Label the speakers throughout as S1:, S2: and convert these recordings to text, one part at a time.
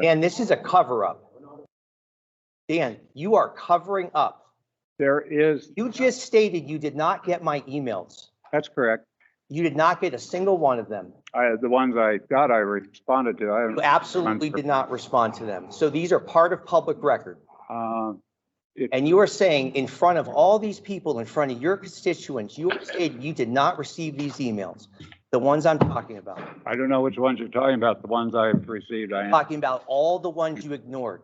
S1: Dan, this is a cover up. Dan, you are covering up.
S2: There is,
S1: You just stated you did not get my emails.
S2: that's correct.
S1: You did not get a single one of them.
S2: I, the ones I got, I responded to. I
S1: You
S2: haven't,
S1: absolutely did not respond to them. So these are part of public record.
S2: um,
S1: And you are saying in front of all these people, in front of your constituents, you stated you did not receive these emails, the ones I'm talking about.
S2: I don't know which ones you're talking about. The ones I've received, I am.
S1: talking about all the ones you ignored.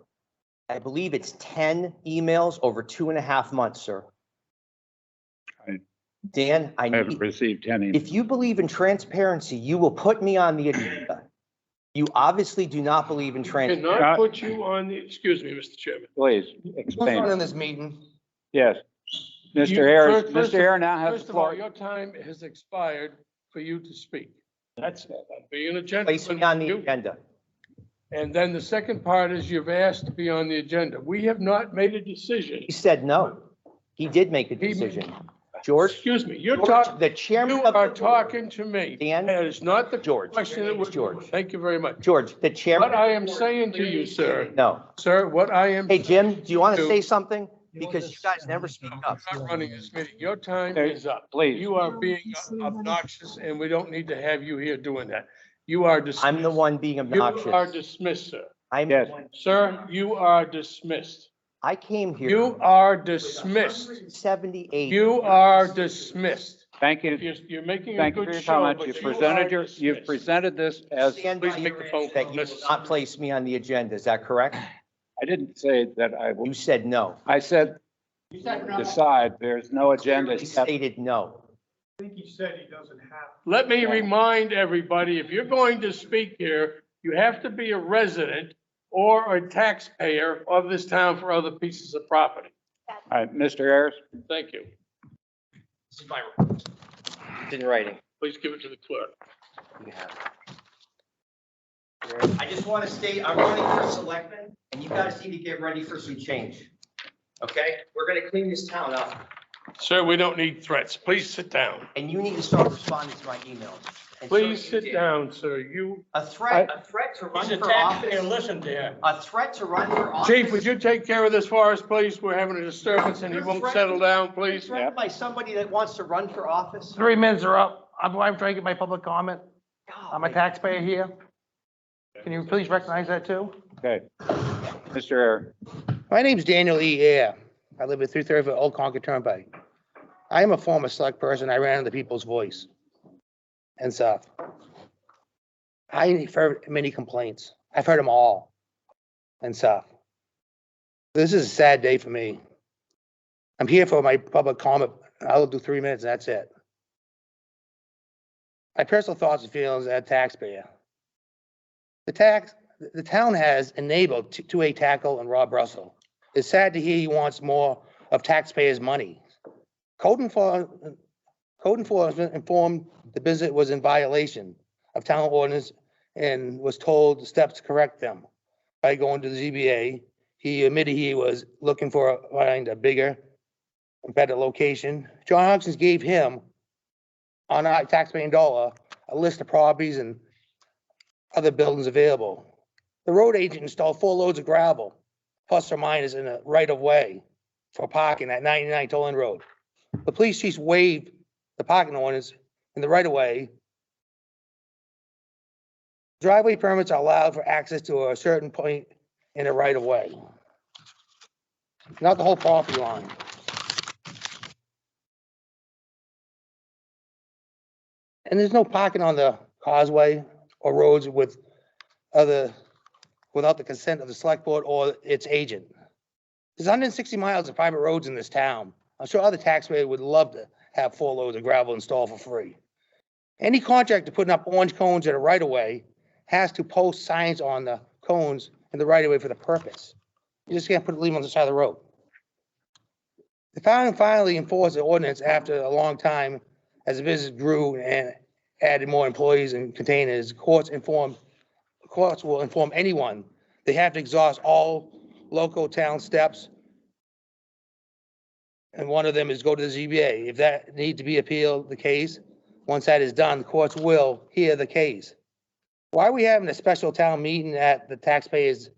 S1: I believe it's 10 emails over two and a half months, sir.
S2: I-
S1: Dan, I
S2: I haven't
S1: need,
S2: received any.
S1: if you believe in transparency, you will put me on the agenda. You obviously do not believe in transparency.
S2: Uh,
S3: Cannot put you on the, excuse me, Mr. Chairman.
S2: Please,
S4: What's on in
S2: expand.
S4: this meeting?
S2: Yes. Mr.
S3: You-
S2: Ayers,
S3: first- first
S2: Mr.
S3: of-
S2: Ayers now has
S3: First
S2: the
S3: of all,
S2: floor.
S3: your time has expired for you to speak.
S2: That's,
S3: Being a
S1: Place me on the
S3: gentleman, you-
S1: agenda.
S3: and then the second part is you've asked to be on the agenda. We have not made a decision.
S1: He said no. He did make a
S3: He-
S1: decision. George,
S3: Excuse me, you're
S1: George,
S3: talking,
S1: the
S3: you
S1: chairman of the
S3: are
S1: board.
S3: talking to me.
S1: Dan?
S3: And it's not the
S1: George.
S3: question that
S1: Your
S3: was,
S1: name's George.
S3: thank you very much.
S1: George, the chairman,
S3: What I am saying to you, sir,
S1: no.
S3: sir, what I am,
S1: Hey, Jim, do you want to
S3: Two.
S1: say something? Because you guys never speak up.
S3: I'm not running this meeting. Your time
S2: Hey,
S3: is up.
S2: please,
S3: You are being obnoxious and we don't need to have you here doing that. You are dismissed.
S1: I'm the one being
S3: You are
S1: obnoxious.
S3: dismissed, sir.
S1: I'm,
S2: Yes.
S3: Sir, you are dismissed.
S1: I came here
S3: You are dismissed.
S1: seventy-eight.
S3: You are dismissed.
S2: thank you.
S3: You're, you're making a
S2: Thank you for
S3: good
S2: your
S3: show,
S2: comments.
S3: but
S2: You've
S3: you
S2: presented
S3: are
S2: your, you've
S3: dismissed.
S2: presented this as,
S1: Stand by
S3: Please make
S1: your
S3: the phone
S1: answer that
S3: call.
S1: you will
S3: Mrs.
S1: not place me on the agenda, is that correct?
S2: I didn't say that I,
S1: You
S2: will-
S1: said no.
S2: I said decide. There's no agenda.
S1: You stated no.
S3: Let me remind everybody, if you're going to speak here, you have to be a resident or a taxpayer of this town for other pieces of property.
S2: All right, Mr. Ayers,
S3: Thank you.
S1: This is my, it's in writing.
S3: Please give it to the clerk.
S1: You have it. I just want to state, I'm running for selectman, and you guys need to get ready for some change. Okay? We're gonna clean this town up,
S3: Sir, we don't need threats. Please sit down.
S1: and you need to start responding to my emails. And so
S3: Please
S1: you
S3: sit
S1: did.
S3: down, sir. You.
S1: A threat, a threat to run for office,
S3: listen to him.
S1: a threat to run for office.
S3: Chief, would you take care of this for us, please? We're having a disturbance and he
S1: You're
S3: won't
S1: threatening-
S3: settle down,
S1: You're
S3: please.
S1: Threatened by somebody that wants to run for office?
S5: Three minutes are up. I'm, I'm trying to get my public comment. I'm a
S1: Golly.
S5: taxpayer here. Can you please recognize that too?
S2: okay. Mr. Ayers.
S6: My name's Daniel E. Ayer. I live at 334 Old Concord Turnpike. I am a former select person. I ran on the people's voice and South. I've heard many complaints. I've heard them all and South. This is a sad day for me. I'm here for my public comment. I'll do three minutes and that's it. My personal thoughts and feelings as a taxpayer. The tax, the town has enabled t- two-way tackle and Rob Russell. It's sad to hear he wants more of taxpayers' money. Code enforcement, code enforcement informed the visit was in violation of town ordinance and was told the steps to correct them by going to the ZBA. He admitted he was looking for, a- find a bigger, better location. John Hopkins gave him on our taxpaying dollar, a list of properties and other buildings available. The road agent installed four loads of gravel, plus or minus in the right of way for parking at ninety-nine Toland Road. The police chief waived the parking ordinance in the right of way. Driveway permits are allowed for access to a certain point in the right of way. Not the whole property line. And there's no parking on the causeway or roads with other without the consent of the select board or its agent. There's 160 miles of private roads in this town. I'm sure other taxpayers would love to have four loads of gravel installed for free. Any contractor putting up orange cones in a right-of-way has to post signs on the cones in the right-of-way for the purpose. You just can't put, leave them on the side of the road. The town finally enforced the ordinance after a long time as the business grew and added more employees and containers. Courts informed courts will inform anyone, they have to exhaust all local town steps. And one of them is go to the ZBA. If that need to be appealed, the case, once that is done, the courts will hear the case. Why are we having a special town meeting at the taxpayers'